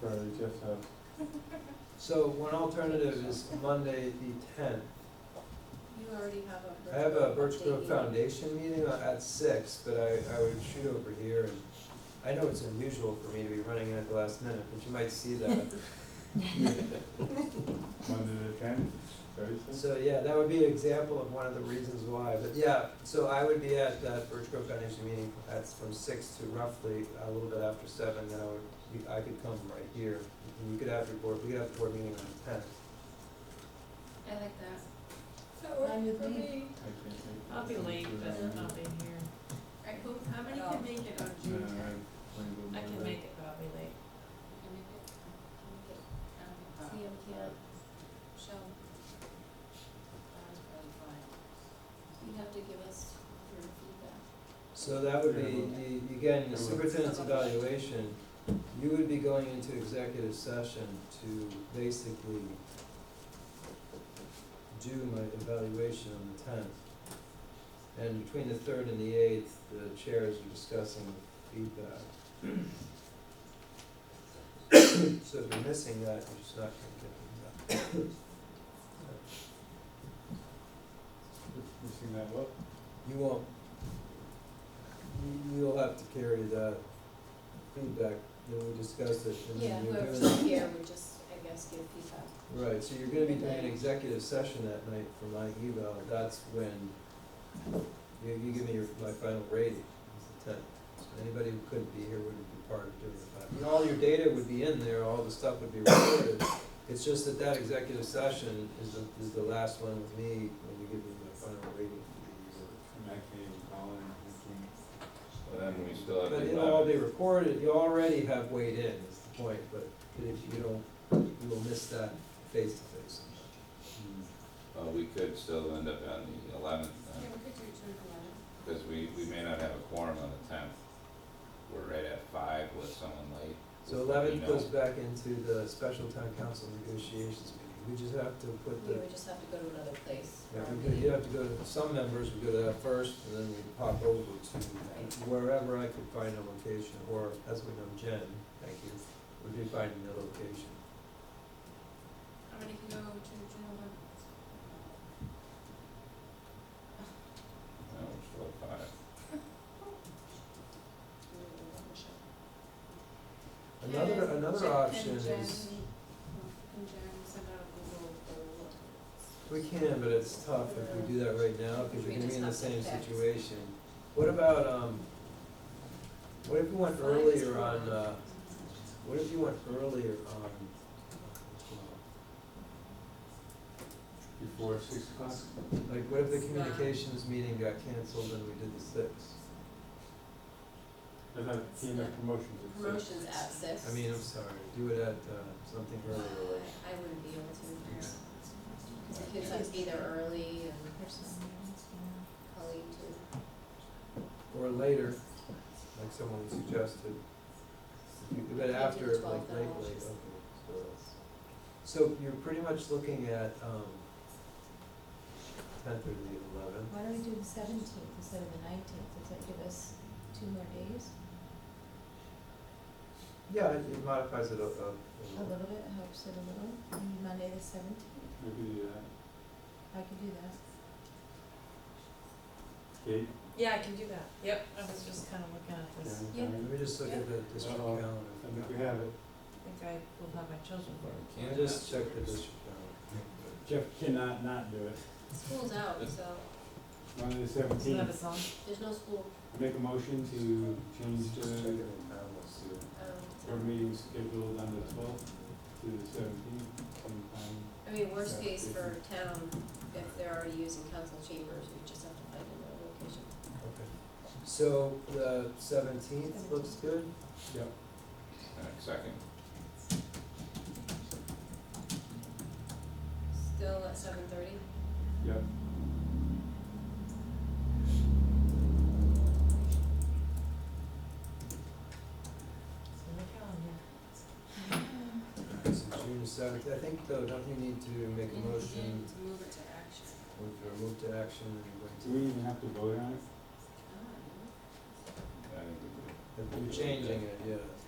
Sorry, just, uh, So one alternative is Monday the tenth. You already have a. I have a Birch Grove update. Foundation meeting at six, but I, I would shoot over here and I know it's unusual for me to be running in at the last minute, but you might see that. Monday the tenth, Thursday? So, yeah, that would be an example of one of the reasons why, but yeah, so I would be at that Birch Grove Foundation meeting, that's from six to roughly a little bit after seven, then I would, you- I could come right here. And you could have your board, we could have the board meeting on the tenth. I like that. That worked for Mine would be- me. I can't make it. I'll be late, but Um, I'll be here. Alright, who, how many can make it on no, June I tenth? wanna go I can Monday. make it, but I'll be late. Can make it? Can make it? Um, Liam can't, Michelle. That's probably fine. You have to give us your feedback. So that would be, the- again, the superintendent's evaluation, you would be going into executive session to basically do my evaluation on the tenth. And between the third and the eighth, the chairs are discussing feedback. So if you're missing that, you're just not gonna get feedback. Missing that what? You won't, you- you'll have to carry that feedback that we discussed it and Yeah, then you're whoever's doing. here would just, I guess, give feedback. Right, so you're gonna be doing an Okay. executive session that night for my eval, that's when you, you give me your, my final rating, it's the tenth. So anybody who couldn't be here wouldn't be part of doing the final. and All your data would be in there, all the stuff would be recorded. It's just that that executive session is the, is the last one with me when you give me my final rating for the year. Mackie and Colin, I Well, Then we still have But to. it'll all be recorded, you already have weighed in, is the point, but if you don't, you will miss that face to face. think. Well, Uh, we could still end up on the eleventh, Yeah, we could do June eleventh. because we, we may not have a quorum on the tenth. We're right at five with someone late. So eleven You know, goes back into the special town council negotiations meeting, we just have to put We the, would just have to go to another place. yeah, we could- you have to go to, some members would go to that first, and then we pop over to wherever I could find a location, or as we know, Jen, thank you, would be finding the location. How many can go to June eleventh? No, we're still at five. Another, Jen- another Jen- option and is. Jen- And Jen send out a Google poll. We can, but it's tough if we do that right now, because We you're gonna just be in the have to same fix. situation. What about, um, what if you went Five is earlier fine. on, uh, what if you went earlier on, uh, Before six o'clock? like, what if the It's not- communications meeting got canceled and we did the sixth? I thought team of promotions at six. Promotions at six. I mean, I'm sorry, do it at, uh, something I earlier, like, I wouldn't be able to. The kids have to be there early and Colleen too. or later, like someone suggested. But Maybe after, the like, 12th late, hours. late, okay, so that's- So you're pretty much looking at, um, tenth or the eleventh, Why don't we do the seventeenth instead of the nineteenth, does that give us two more days, yeah, it- it modifies it a, a- a a little. little bit, helps it a little, maybe Monday the seventeenth, Maybe, uh, I could do that. Kate, Yeah, I can do that. Yep, I was just kind of looking at this. Karen, Yeah. Karen, Let me just look at the district Uh-oh. calendar. I think we have it. I think I will have my children Well, for we I'll can't Just have- check the district calendar. Jeff cannot not do it. School's out, so Monday the it. Isn't that seventeenth, a song? there's no school, make a motion to change Just check it the in town, we'll see. board um, meeting scheduled on the twelfth to the seventeenth sometime. I mean, worst case for town, if they're already using council chambers, we just have to find another location. Okay. So the seventeenth looks good, uh, Second, Still at seven thirty? Yep. It's in the calendar. so June seventh, I think though, don't you need to make a motion To move it to action. or to remove to action and you're going to? Do we even have to vote on it? Ah, I think we If You're changing it, yes.